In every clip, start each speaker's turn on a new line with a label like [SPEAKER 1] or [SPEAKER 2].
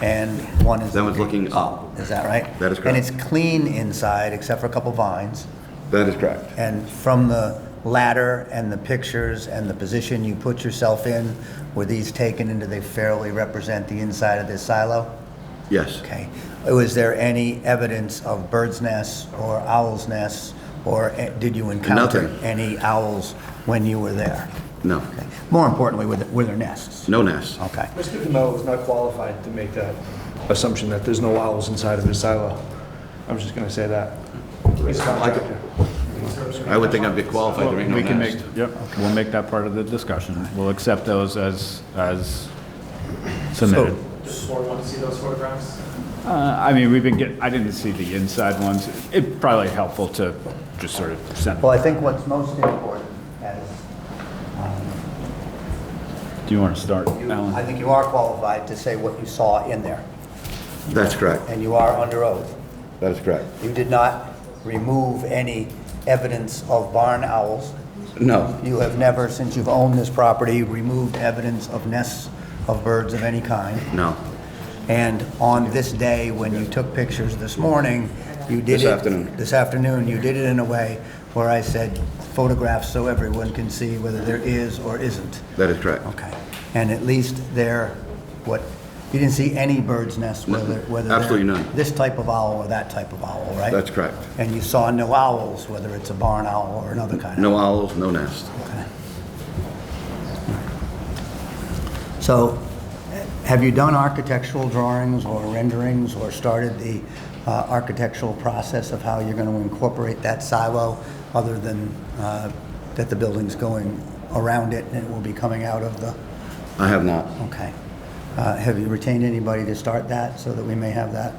[SPEAKER 1] and one is. Oh,
[SPEAKER 2] That one's looking up.
[SPEAKER 1] Is that right?
[SPEAKER 2] That is
[SPEAKER 1] And
[SPEAKER 2] correct.
[SPEAKER 1] it's clean inside, except for a couple vines.
[SPEAKER 2] That is correct.
[SPEAKER 1] And from the ladder and the pictures and the position you put yourself in, were these taken and do they fairly represent the inside of this silo?
[SPEAKER 2] Yes.
[SPEAKER 1] Okay. Was there any evidence of bird's nests or owl's nests? Or eh, did you encounter
[SPEAKER 2] Nothing.
[SPEAKER 1] any owls when you were there?
[SPEAKER 2] No.
[SPEAKER 1] Okay. More importantly, were there- were there nests?
[SPEAKER 2] No nest.
[SPEAKER 1] Okay.
[SPEAKER 3] Mr. DeMello is not qualified to make that assumption that there's no owls inside of his silo. I'm just going to say that. He's a contractor.
[SPEAKER 2] I would think I'd be qualified to make no
[SPEAKER 4] We can make,
[SPEAKER 2] nest.
[SPEAKER 4] yep, we'll make that part of the discussion. We'll accept those as, as submitted.
[SPEAKER 5] Does the board want to see those photographs?
[SPEAKER 4] Uh, I mean, we've been getting, I didn't see the inside ones. It probably helpful to just sort of send,
[SPEAKER 1] Well, I think what's most important is,
[SPEAKER 4] do you want to start,
[SPEAKER 1] you- I
[SPEAKER 4] Alan?
[SPEAKER 1] think you are qualified to say what you saw in there,
[SPEAKER 2] That's correct.
[SPEAKER 1] and you are under oath.
[SPEAKER 2] That is correct.
[SPEAKER 1] You did not remove any evidence of barn owls.
[SPEAKER 2] No.
[SPEAKER 1] You have never, since you've owned this property, removed evidence of nests of birds of any kind.
[SPEAKER 2] No.
[SPEAKER 1] And on this day, when you took pictures this morning, you did it...
[SPEAKER 2] This afternoon.
[SPEAKER 1] This afternoon, you did it in a way where I said photographs so everyone can see whether there is or isn't.
[SPEAKER 2] That is correct.
[SPEAKER 1] Okay. And at least there, what, you didn't see any bird's nest, whether, whether... they're
[SPEAKER 2] Absolutely none.
[SPEAKER 1] This type of owl or that type of owl, right?
[SPEAKER 2] That's correct.
[SPEAKER 1] And you saw no owls, whether it's a barn owl or another kind of...
[SPEAKER 2] No owls, no nest.
[SPEAKER 1] So, eh, have you done architectural drawings or renderings or started the uh, architectural process of how you're going to incorporate that silo, other than uh, that the building's going around it and it will be coming out of the,
[SPEAKER 2] I have not.
[SPEAKER 1] okay. Uh, Have you retained anybody to start that, so that we may have that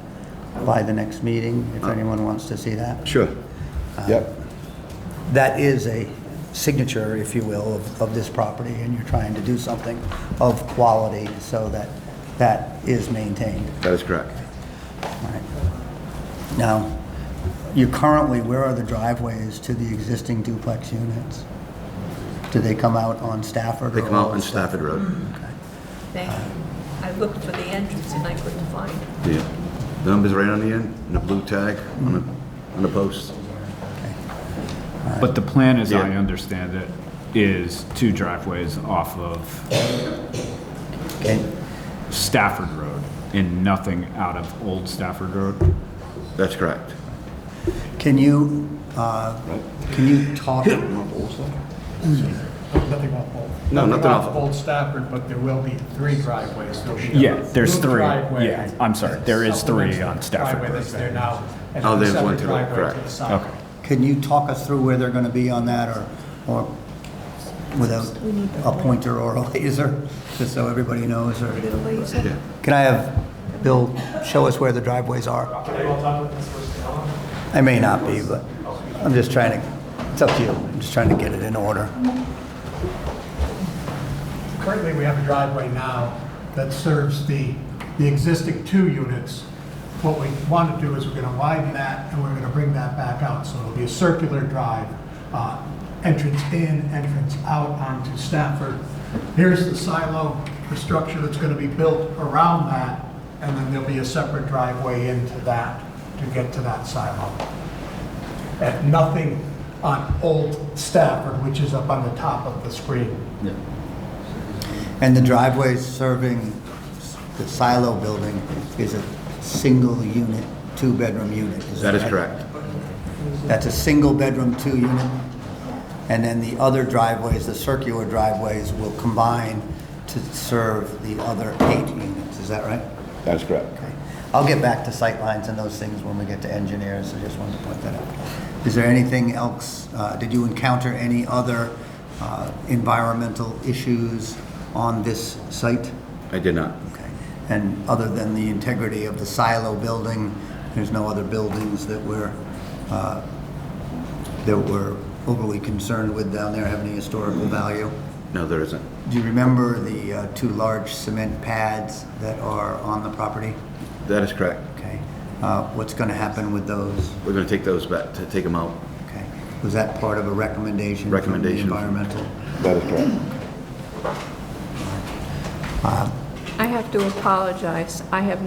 [SPEAKER 1] by the next meeting,
[SPEAKER 2] Uh,
[SPEAKER 1] if anyone wants to see that?
[SPEAKER 2] Sure.
[SPEAKER 1] Uh,
[SPEAKER 2] Yep.
[SPEAKER 1] that is a signature, if you will, of, of this property, and you're trying to do something of quality so that that is maintained.
[SPEAKER 2] That is correct.
[SPEAKER 1] All right. Now, you currently, where are the driveways to the existing duplex units? Do they come out on Stafford?
[SPEAKER 2] They
[SPEAKER 1] or
[SPEAKER 2] come out on
[SPEAKER 1] Old
[SPEAKER 2] Stafford Road.
[SPEAKER 6] Thank you. I looked for the entrance and I couldn't find it.
[SPEAKER 2] Yeah. The number's right on the end, and a blue tag on the, on the post.
[SPEAKER 4] But the plan, as I
[SPEAKER 2] Yeah.
[SPEAKER 4] understand it, is two driveways off of
[SPEAKER 1] Okay.
[SPEAKER 4] Stafford Road and nothing out of Old Stafford Road.
[SPEAKER 2] That's correct.
[SPEAKER 1] Can you, uh, can you talk,
[SPEAKER 7] Nothing off Old.
[SPEAKER 2] No, nothing off-
[SPEAKER 7] Old Stafford, but there will be three driveways. There'll be a
[SPEAKER 4] Yeah, there's
[SPEAKER 7] new
[SPEAKER 4] three.
[SPEAKER 7] driveway
[SPEAKER 4] Yeah, I'm sorry. There is
[SPEAKER 7] supplements
[SPEAKER 4] three on
[SPEAKER 7] the
[SPEAKER 4] Stafford
[SPEAKER 7] driveway that's
[SPEAKER 4] Road.
[SPEAKER 7] there now. and
[SPEAKER 2] Oh,
[SPEAKER 7] a
[SPEAKER 2] there's one
[SPEAKER 7] separate
[SPEAKER 2] to the-
[SPEAKER 7] driveway
[SPEAKER 2] correct.
[SPEAKER 7] the side.
[SPEAKER 4] Okay.
[SPEAKER 1] can you talk us through where they're going to be on that, or, or without a pointer or a laser, just so everybody knows, or?
[SPEAKER 2] Yeah.
[SPEAKER 1] Can I have Bill show us where the driveways are?
[SPEAKER 5] Can I go talk with Ms. Costello?
[SPEAKER 1] I may not be, but I'm just trying to, it's up to you. I'm just trying to get it in order.
[SPEAKER 7] Currently, we have a driveway now that serves the, the existing two units. What we want to do is we're going to widen that and we're going to bring that back out. So it'll be a circular drive, uh, entrance in, entrance out onto Stafford. Here's the silo, the structure that's going to be built around that, and then there'll be a separate driveway into that to get to that silo and nothing on Old Stafford, which is up on the top of the screen.
[SPEAKER 1] And the driveway serving the silo building is a single unit, two-bedroom unit.
[SPEAKER 2] That is
[SPEAKER 1] right?
[SPEAKER 2] correct.
[SPEAKER 1] That's a single-bedroom, two-unit. And then the other driveways, the circular driveways, will combine to serve the other eight units. Is that right?
[SPEAKER 2] That is correct.
[SPEAKER 1] Okay. I'll get back to sightlines and those things when we get to engineers, I just wanted to point that out. Is there anything else, uh, did you encounter any other uh, environmental issues on this site?
[SPEAKER 2] I did not.
[SPEAKER 1] Okay. And other than the integrity of the silo building, there's no other buildings that we're, uh, that we're overly concerned with down there having any historical value?
[SPEAKER 2] No, there isn't.
[SPEAKER 1] Do you remember the uh, two large cement pads that are on the property?
[SPEAKER 2] That is correct.
[SPEAKER 1] Okay, Uh, what's going to happen with those?
[SPEAKER 2] We're gonna take those back, to take them out.
[SPEAKER 1] Okay, was that part of a recommendation? from the
[SPEAKER 2] Recommendation.
[SPEAKER 1] Environmental?
[SPEAKER 2] That is correct.
[SPEAKER 6] I have to apologize. I have not